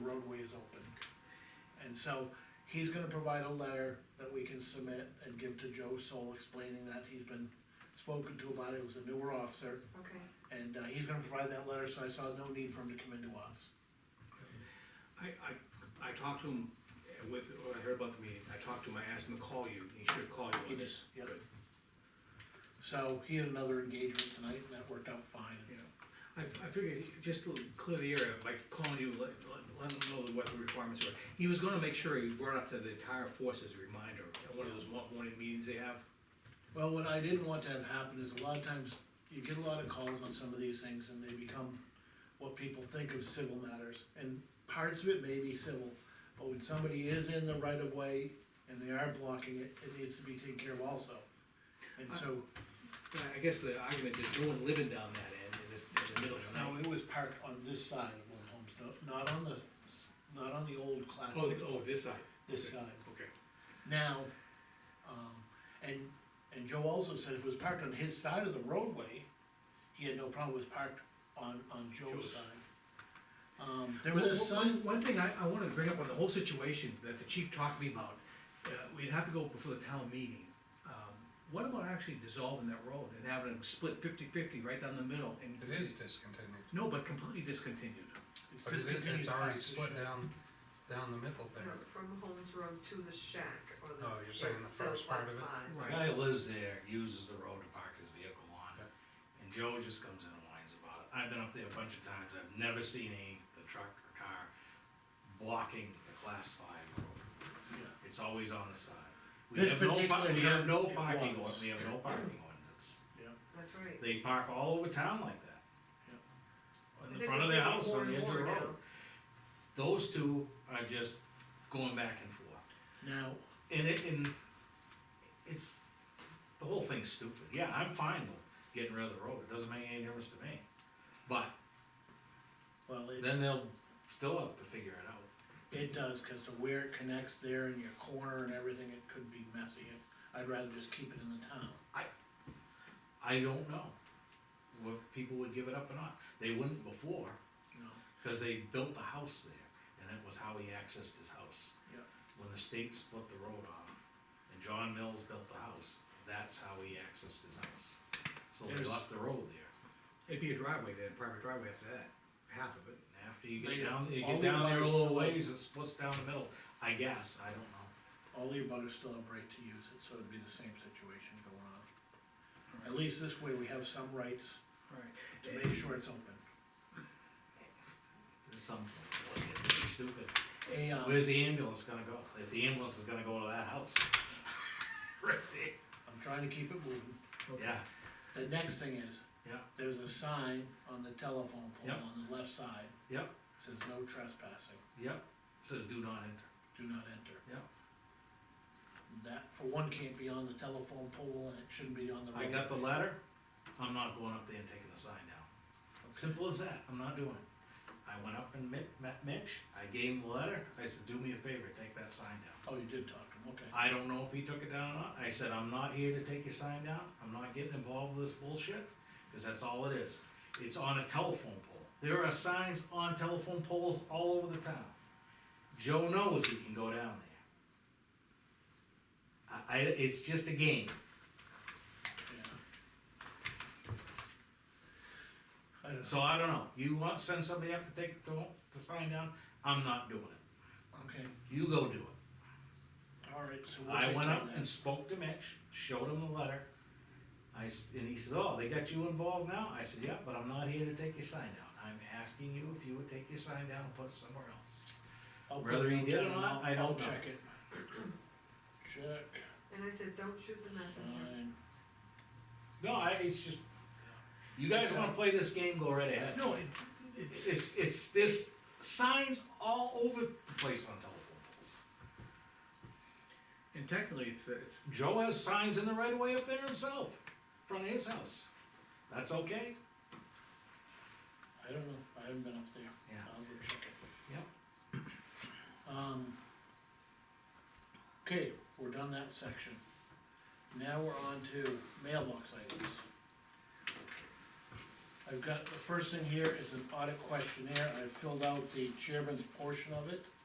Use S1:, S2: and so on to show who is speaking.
S1: is open. And so he's gonna provide a letter that we can submit and give to Joe Soul explaining that he's been spoken to about it, It was a newer officer.
S2: okay.
S1: And uh, he's gonna provide that letter, so I saw no need for him to come into us.
S3: I, I, I talked to him with, when I heard about the meeting, I talked to him, I asked him to call you, he should call you
S1: He
S3: on this.
S1: did, yep.
S3: Good,
S1: So he had another engagement tonight and that worked out fine.
S3: you know. I, I figured, just to clear the area, by calling you, let, let, let him know what the requirements were. He was gonna make sure he brought up to the entire force as a reminder, at one of those mo- morning meetings they have.
S1: Well, what I didn't want to have happen is a lot of times you get a lot of calls on some of these things and they become what people think of civil matters. And parts of it may be civil, but when somebody is in the right of way and they are blocking it, it needs to be taken care of also. And so,
S3: I- I guess the argument is no one living down that end, in this, in the middle of the
S1: no,
S3: night.
S1: it was parked on this side of Old Homes, no- not on the, not on the old class
S3: Oh,
S1: six,
S3: oh, this side,
S1: this side.
S3: okay.
S1: Now, um, and, and Joe also said if it was parked on his side of the roadway, he had no problem, it was parked on, on Joe's
S3: Joe's.
S1: side. Um, there was a
S3: One- one-
S1: sign,
S3: One thing I, I wanna bring up on the whole situation that the chief talked to me about, uh, we'd have to go before the town meeting. Um, What about actually dissolving that road and having it split 50-50 right down the middle and.
S4: It is discontinued.
S3: No, but completely discontinued.
S1: it's
S4: But it-
S1: discontinued.
S4: It's already
S1: past the
S4: split
S1: shed.
S4: down, down the middle there.
S2: From, from Holmes Road to the shack or the.
S4: Oh, you're saying the
S2: yes,
S4: first part
S2: last
S4: of it?
S2: mile.
S3: Right.
S5: The guy who lives there uses the road to park his vehicle on, and Joe just comes in and whines about it. I've been up there a bunch of times, I've never seen any, the truck or car blocking the class five road.
S1: Yeah.
S5: It's always on the side. We
S1: This
S5: have no par-
S1: particular
S5: We have no
S1: time, it
S5: parking,
S1: was.
S5: or- we have no parking ordinance.
S2: That's right.
S5: They park all over town like that.
S2: I
S5: In the
S2: think
S5: front
S2: we're
S5: of their
S2: seeing
S5: house,
S2: more
S5: on the
S2: and
S5: edge of the
S2: more now.
S5: road. Those two are just going back and forth.
S1: Now,
S5: And it, and it's, the whole thing's stupid, yeah, I'm fine with getting rid of the road, it doesn't make any difference to me. But
S1: well, it,
S5: then they'll still have to figure it out.
S1: it does, cause to where it connects there in your corner and everything, it could be messy. I'd rather just keep it in the town.
S5: I don't know what people would give it up or not, they wouldn't before,
S1: No,
S5: cause they built a house there, and it was how he accessed his house.
S1: Yeah.
S5: When the state split the road off, and John Mills built the house, that's how he accessed his house. So they
S1: There's-
S5: left the road there,
S3: It'd be a driveway then, private driveway after that, half of it.
S5: and after you
S1: They-
S5: get down, you
S1: all
S5: get
S1: the
S5: down there a
S1: others
S5: little
S1: still-
S5: ways, it splits down the middle, I guess, I don't know.
S1: all the abutters still have right to use it, so it'd be the same situation going on. At least this way we have some rights to
S3: Right.
S1: make sure it's open.
S5: at some point, like, it's gonna be stupid.
S1: A, um,
S5: Where's the ambulance gonna go? If the ambulance is gonna go to that house. Right there.
S1: I'm trying to keep it moving.
S3: Okay.
S5: Yeah,
S1: The next thing is.
S5: Yeah.
S1: There's a sign on the telephone pole
S5: Yep.
S1: on the left side,
S5: yep,
S1: says no trespassing,
S5: yep, so do not enter,
S1: do not enter.
S5: Yep.
S1: That, for one, can't be on the telephone pole and it shouldn't be on the road.
S5: I got the letter, I'm not going up there and taking the sign down, simple as that, I'm not doing it. I went up and met, met Mitch, I gave him the letter, I said, do me a favor, take that sign down.
S1: Oh, you did talk to him, okay.
S5: I don't know if he took it down or not, I said, I'm not here to take your sign down, I'm not getting involved with this bullshit, cause that's all it is. It's on a telephone pole, there are signs on telephone poles all over the town. Joe knows he can go down there. I, I, it's just a game,
S1: Yeah. I don't know,
S5: so I don't know, you want, send somebody up to take the, the sign down, I'm not doing it,
S1: okay,
S5: you go do it.
S1: alright, so we'll take
S5: I went
S1: care of
S5: up
S1: that.
S5: and spoke to Mitch, showed him the letter. I, s- and he said, oh, they got you involved now? I said, yeah, but I'm not here to take your sign down. I'm asking you if you would take your sign down and put it somewhere else.
S1: I'll put
S5: whether he
S1: note
S5: did or
S1: down and
S5: not,
S1: I'll-
S5: I don't
S1: I'll
S5: know.
S1: Check it. Check,
S2: And I said, don't shoot the messenger.
S1: sign.
S5: No, I, it's just, you guys wanna play this game, go right ahead.
S3: No, it,
S5: It's,
S3: it's,
S5: it's, it's, there's signs all over the place on telephone poles.
S3: and technically, it's, the- it's,
S5: Joe has signs in the right of way up there himself, in front of his house. That's okay?
S1: I don't know, I haven't been up there.
S5: Yeah.
S1: I'll go check it.
S5: Yep.
S1: Um. Okay, we're done that section. Now we're on to mailbox items. I've got, the first thing here is an audit questionnaire, I filled out the chairman's portion of it.